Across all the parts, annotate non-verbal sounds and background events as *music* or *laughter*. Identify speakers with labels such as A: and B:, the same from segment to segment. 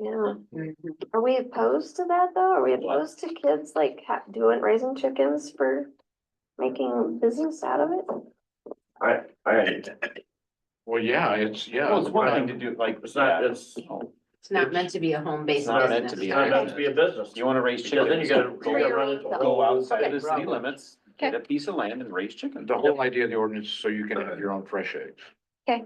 A: Yeah, are we opposed to that though? Are we opposed to kids like ha- doing, raising chickens for making business out of it?
B: I, I,
C: Well, yeah, it's, yeah.
B: Well, it's one thing to
C: do like.
B: it's not, it's,
D: It's not meant to be a home-based
B: It's not meant
D: business.
C: to be.
B: not meant to be a business.
E: You wanna raise
B: Because then you
E: chickens,
B: gotta, you gotta run into. a
E: go
B: whole
E: outside the city
B: problem.
E: limits, get a piece of land and raise chickens.
C: The whole idea of the ordinance, is so you can have your own fresh eggs,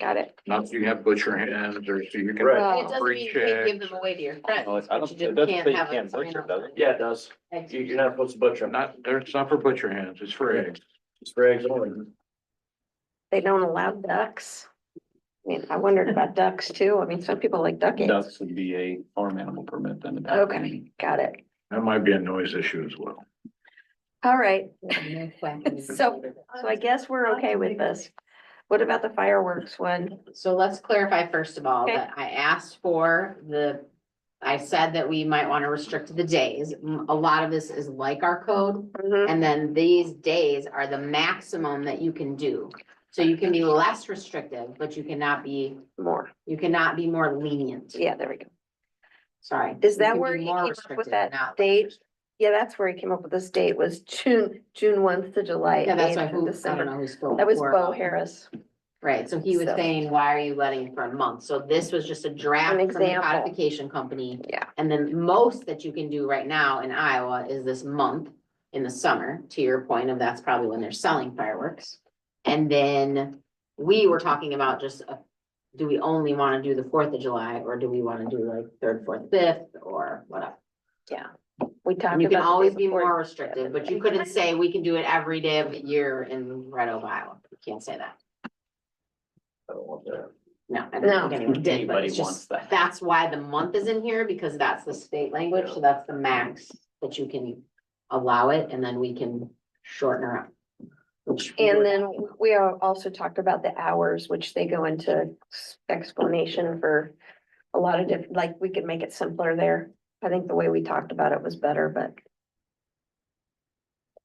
A: Got it.
C: not you have butcher hens or so you can.
B: Right.
D: It
A: Oh,
D: doesn't mean you can't give them away to your friends.
E: Well, it's- I
D: but
E: don't-
D: you just
E: it doesn't say you
D: have a
E: can't
D: sign
E: butcher,
D: on
E: does it?
B: Yeah, it does.
D: it.
B: You, you're not supposed to butcher them, not
C: Not, there- it's not for butcher hens, it's for eggs.
B: just for eggs only.
A: They don't allow ducks. I mean, I wondered about ducks too. I mean, some people like duck eggs.
E: Ducks would be a farm animal permit then.
A: Okay, got it.
C: That might be a noise issue as well.
A: All right,
D: No question.
A: So- so I guess we're okay with this. What about the fireworks one?
D: So let's clarify first of all,
A: Okay.
D: that I asked for the, I said that we might want to restrict the days. M- A lot of this is like our code,
A: Mhm.
D: and then these days are the maximum that you can do. So you can be less restrictive, but you cannot be,
A: More,
D: you cannot be more lenient.
A: yeah, there we go.
D: Sorry.
A: Is
D: You
A: that
D: can be
A: where he
D: more
A: came up with
D: restrictive,
A: that
D: not less
A: date?
D: restrictive.
A: Yeah, that's where he came up with this date was June, June one to July
D: Yeah, that's why,
A: eighth to
D: who- I don't know
A: December.
D: who's spoke.
A: That was
D: before.
A: Bo Harris.
D: Right, so he was
A: So-
D: saying, why are you letting it for a month? So this was just a draft
A: An
D: from the
A: example.
D: codification company.
A: Yeah.
D: And then most that you can do right now in Iowa is this month in the summer, to your point of that's probably when they're selling fireworks. And then we were talking about just, uh, do we only want to do the Fourth of July or do we want to do like third, fourth, fifth or whatever?
A: We talked about.
D: And you can
A: the day
D: always be
A: before.
D: more restrictive, but you couldn't say we can do it every day of the year in Red Oak, Iowa. You can't say that.
B: I don't want that.
D: No, I
A: No.
D: don't think anyone did, but
E: Anybody
D: it's
E: wants
D: just,
E: that.
D: that's why the month is in here, because that's the state language, so that's the max that you can allow it, and then we can shorten her up. which we
A: And
D: would-
A: then we are also talked about the hours, which they go into s- explanation for a lot of different, like, we could make it simpler there. I think the way we talked about it was better, but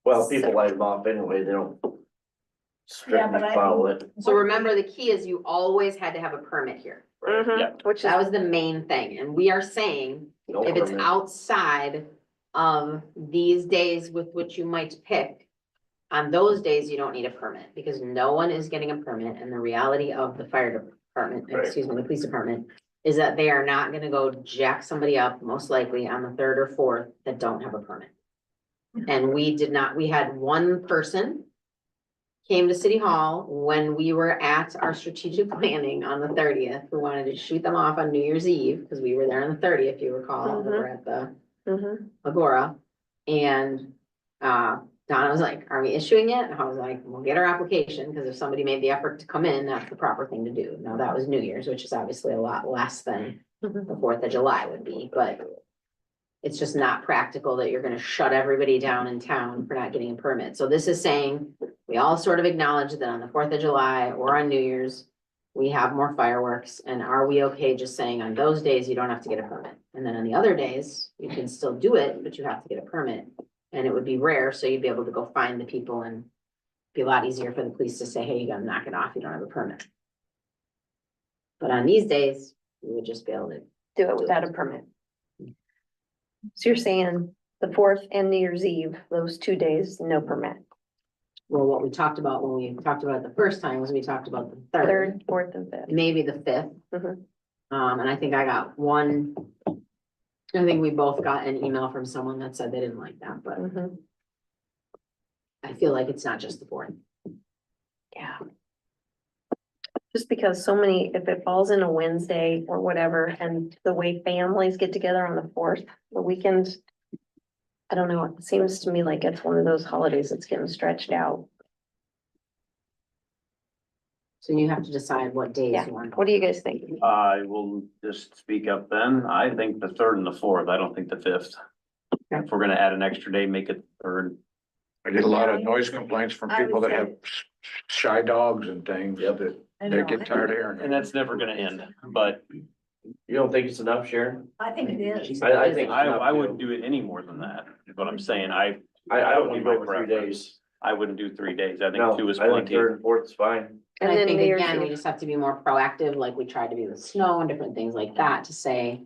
B: Well, people light them off anyway, they don't strictly
F: but I-
B: follow it.
D: So remember, the key is you always had to have a permit here.
A: Mm-hmm.
E: yeah.
A: which is,
D: Mm-hmm. That was the main thing, and we are saying,
B: No
D: if it's
B: permit.
D: outside of these days with which you might pick. On those days, you don't need a permit, because no one is getting a permit, and the reality of the fire department,
B: Right.
D: excuse me, the police department. Is that they are not gonna go jack somebody up, most likely on the third or fourth, that don't have a permit. And we did not, we had one person. Came to City Hall when we were at our strategic *laughs* planning on the thirtieth, who wanted to shoot them off on New Year's Eve, because we were there on the thirtieth, if you recall, we were at the
A: Mhm.
D: Agora. And uh, Donna was like, are we issuing it? And I was like, we'll get our application, because if somebody made the effort to come in, that's the proper thing to do. Now, that was New Year's, which is obviously a lot less than
A: Mm-hmm.
D: the Fourth of July would be, but it's just not practical that you're gonna shut everybody down in town for not getting a permit. So this is saying, we all sort of acknowledge that on the Fourth of July or on New Year's, we have more fireworks, and are we okay just saying on those days you don't have to get a permit? And then on the other days, you can still do it, but you have to get a permit. And it would be rare, so you'd be able to go find the people and be a lot easier for the police to say, hey, you gotta knock it off, you don't have a permit. But on these days, you would just be able to
A: do it without a permit. So you're saying the fourth and New Year's Eve, those two days, no permit.
D: Well, what we talked about when we talked about it the first time was we talked about the third,
A: Third, fourth and fifth.
D: maybe the fifth.
A: Mhm.
D: Um, and I think I got one. I think we both got an email from someone that said they didn't like that, but
A: Mhm.
D: I feel like it's not just the fourth.
A: Yeah. Just because so many, if it falls in a Wednesday or whatever, and the way families get together on the fourth, the weekend. I don't know, it seems to me like it's one of those holidays that's getting stretched out.
D: So you have to decide what days
A: Yeah.
D: you want.
A: What do you guys think?
E: I will just speak up then. I think the third and the fourth, I don't think the fifth.
D: Okay.
E: If we're gonna add an extra day, make it third.
C: I get a lot of noise complaints from
F: I would
C: people that
F: say-
C: have s- shy dogs and things
B: Yep.
C: that
F: I
C: they
F: know,
C: get
F: I
C: tired of
F: think-
C: hearing.
E: And that's never gonna end, but
B: You don't think it's enough, Sharon?
F: I think it is.
B: I, I think.
E: I, I wouldn't do it any more than that. Is what I'm saying. I,
B: I, I don't
E: That would
B: want
E: be
B: to
E: my
B: go three
E: preference.
B: days.
E: I wouldn't do three days. I
B: No,
E: think two is
B: I think
E: plenty.
B: third and fourth is fine.
D: And I
A: then
D: think
A: New Year's
D: again, we
A: Eve.
D: just have to be more proactive, like we tried to be with snow and different things like that to say.